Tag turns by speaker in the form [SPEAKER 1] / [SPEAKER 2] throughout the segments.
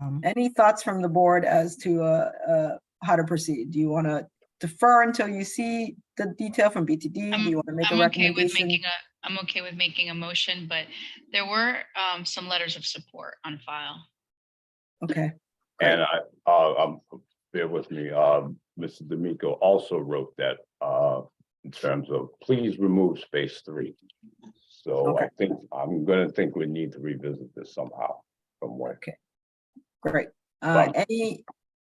[SPEAKER 1] Um,
[SPEAKER 2] Any thoughts from the board as to uh, uh, how to proceed? Do you want to defer until you see the detail from BTD? Do you want to make a
[SPEAKER 3] I'm okay with
[SPEAKER 2] recommendation?
[SPEAKER 3] making a, I'm okay with making a motion, but there were um, some letters of support on file.
[SPEAKER 2] Okay,
[SPEAKER 4] And I, uh, um, bear with me, um, Mr. D'Amico also wrote that, uh, in terms of, please remove space three. So I
[SPEAKER 2] Okay.
[SPEAKER 4] think, I'm gonna think we need to revisit this somehow, from where.
[SPEAKER 2] great. Uh,
[SPEAKER 4] Wow.
[SPEAKER 2] Any,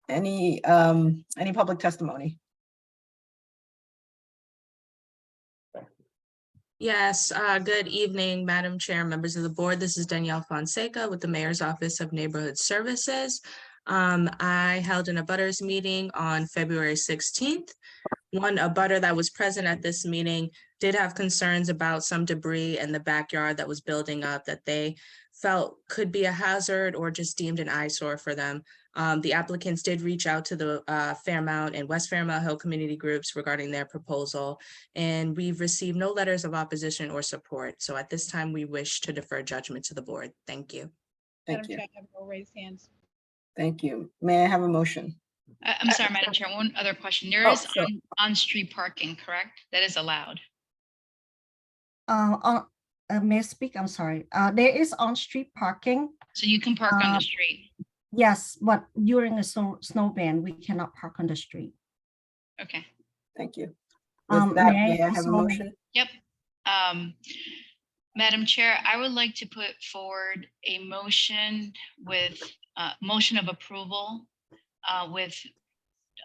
[SPEAKER 2] any, um, any public testimony?
[SPEAKER 5] Yes, uh, good evening, Madam Chair, members of the board. This is Danielle Fonseca with the Mayor's Office of Neighborhood Services. Um, I held an abutters meeting on February sixteenth. One abutter that was present at this meeting did have concerns about some debris in the backyard that was building up that they felt could be a hazard or just deemed an eyesore for them. Um, the applicants did reach out to the uh, Fairmount and West Fairmount Hill community groups regarding their proposal. And we've received no letters of opposition or support. So at this time, we wish to defer judgment to the board. Thank you.
[SPEAKER 2] Thank
[SPEAKER 6] Madam
[SPEAKER 2] you,
[SPEAKER 6] Chair, I have no raised hands.
[SPEAKER 2] thank you. May I have a motion?
[SPEAKER 3] I- I'm sorry, Madam Chair, one other question. There
[SPEAKER 2] Uh, Oh,
[SPEAKER 3] is
[SPEAKER 2] sure.
[SPEAKER 3] on- on-street parking, correct? That is allowed.
[SPEAKER 1] uh, on- uh, may I speak? I'm sorry. Uh, there is on-street parking.
[SPEAKER 3] So you can park on
[SPEAKER 1] Uh,
[SPEAKER 3] the street.
[SPEAKER 1] Yes, but during a snow, snow ban, we cannot park on the street.
[SPEAKER 3] Okay.
[SPEAKER 2] Thank you.
[SPEAKER 1] Um,
[SPEAKER 2] With that,
[SPEAKER 1] may I
[SPEAKER 2] may I have a
[SPEAKER 1] also-
[SPEAKER 2] motion?
[SPEAKER 3] Um, Madam Chair, I would like to put forward a motion with, uh, motion of approval uh, with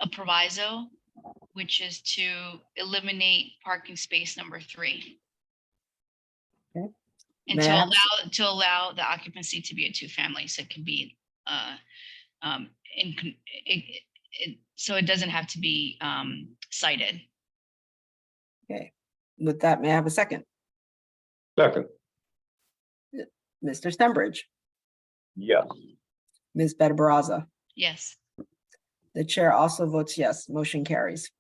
[SPEAKER 3] a proviso, which is to eliminate parking space number three.
[SPEAKER 2] Okay.
[SPEAKER 3] And
[SPEAKER 2] May I
[SPEAKER 3] to
[SPEAKER 2] have a
[SPEAKER 3] allow, to allow the occupancy to be a two-family, so it can be, uh, um, in, con- it, it- it- so it doesn't have to be, um, cited.
[SPEAKER 2] With that, may I have a second?
[SPEAKER 4] Second,
[SPEAKER 2] Mr. Stenbridge,
[SPEAKER 4] yes,
[SPEAKER 2] Ms. Better Baraza.
[SPEAKER 3] Yes.
[SPEAKER 2] The chair also votes yes. Motion carries.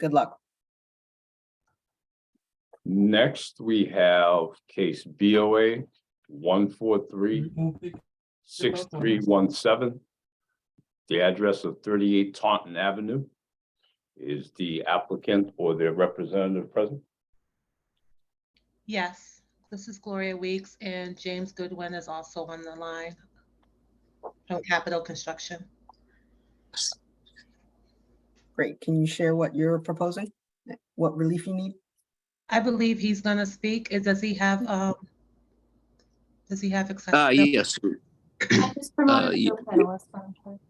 [SPEAKER 2] Good luck.
[SPEAKER 4] next we have case BOA one four three six three one seven. The address of thirty-eight Taunton Avenue. Is the applicant or their representative present?
[SPEAKER 6] Yes, this is Gloria Weeks and James Goodwin is also on the line from Capital Construction.
[SPEAKER 2] Great. Can you share what you're proposing? Eh, What relief you need?
[SPEAKER 6] I believe he's gonna speak. Is, does he have, um, does he have
[SPEAKER 7] Uh,
[SPEAKER 6] accessibility?
[SPEAKER 7] yes,
[SPEAKER 8] I just promoted
[SPEAKER 7] ye-
[SPEAKER 8] the panelist on Twitter.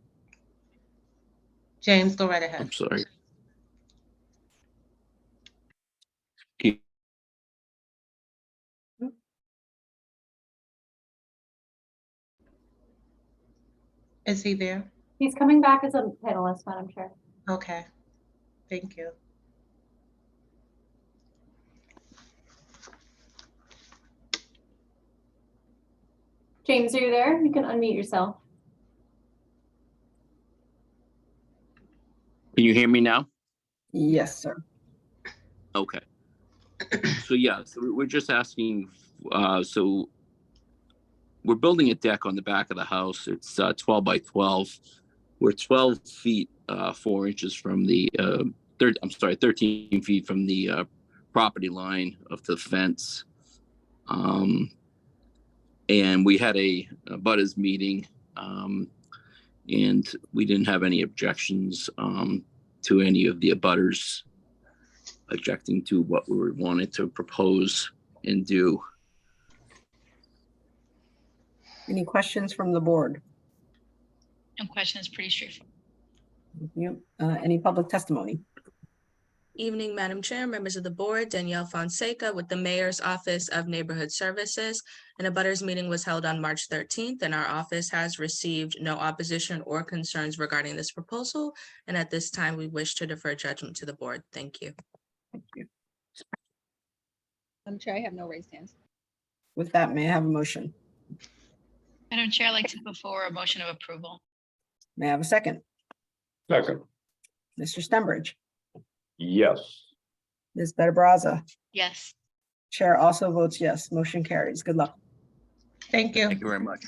[SPEAKER 6] James, go right ahead.
[SPEAKER 7] I'm sorry. Can
[SPEAKER 6] Is he there?
[SPEAKER 8] He's coming back as a panelist, Madam Chair.
[SPEAKER 6] Okay, thank you.
[SPEAKER 8] James, are you there? You can unmute yourself.
[SPEAKER 7] can you hear me now?
[SPEAKER 2] Yes, sir.
[SPEAKER 7] Okay. So yeah, so we- we're just asking, uh, so we're building a deck on the back of the house. It's uh, twelve by twelve. We're twelve feet, uh, four inches from the, uh, third, I'm sorry, thirteen feet from the, uh, property line of the fence. Um, and we had a a butters meeting, um, and we didn't have any objections, um, to any of the abutters objecting to what we were wanted to propose and do.
[SPEAKER 2] Any questions from the board?
[SPEAKER 3] No question is pretty straightforward.
[SPEAKER 2] Yep. Uh, any public testimony?
[SPEAKER 5] Evening, Madam Chair, members of the board, Danielle Fonseca with the Mayor's Office of Neighborhood Services. And a butters meeting was held on March thirteenth, and our office has received no opposition or concerns regarding this proposal. And at this time, we wish to defer judgment to the board. Thank you.
[SPEAKER 2] Thank you.
[SPEAKER 6] I'm sure I have no raised hands.
[SPEAKER 2] With that, may I have a motion?
[SPEAKER 3] Madam Chair, I'd like to put forward a motion of approval.
[SPEAKER 2] May I have a second?
[SPEAKER 4] Second,
[SPEAKER 2] Mr. Stenbridge,
[SPEAKER 4] yes.
[SPEAKER 2] Ms. Better Baraza.
[SPEAKER 3] Yes.
[SPEAKER 2] Chair also votes yes. Motion carries. Good luck.
[SPEAKER 6] Thank you.
[SPEAKER 7] Thank you very much.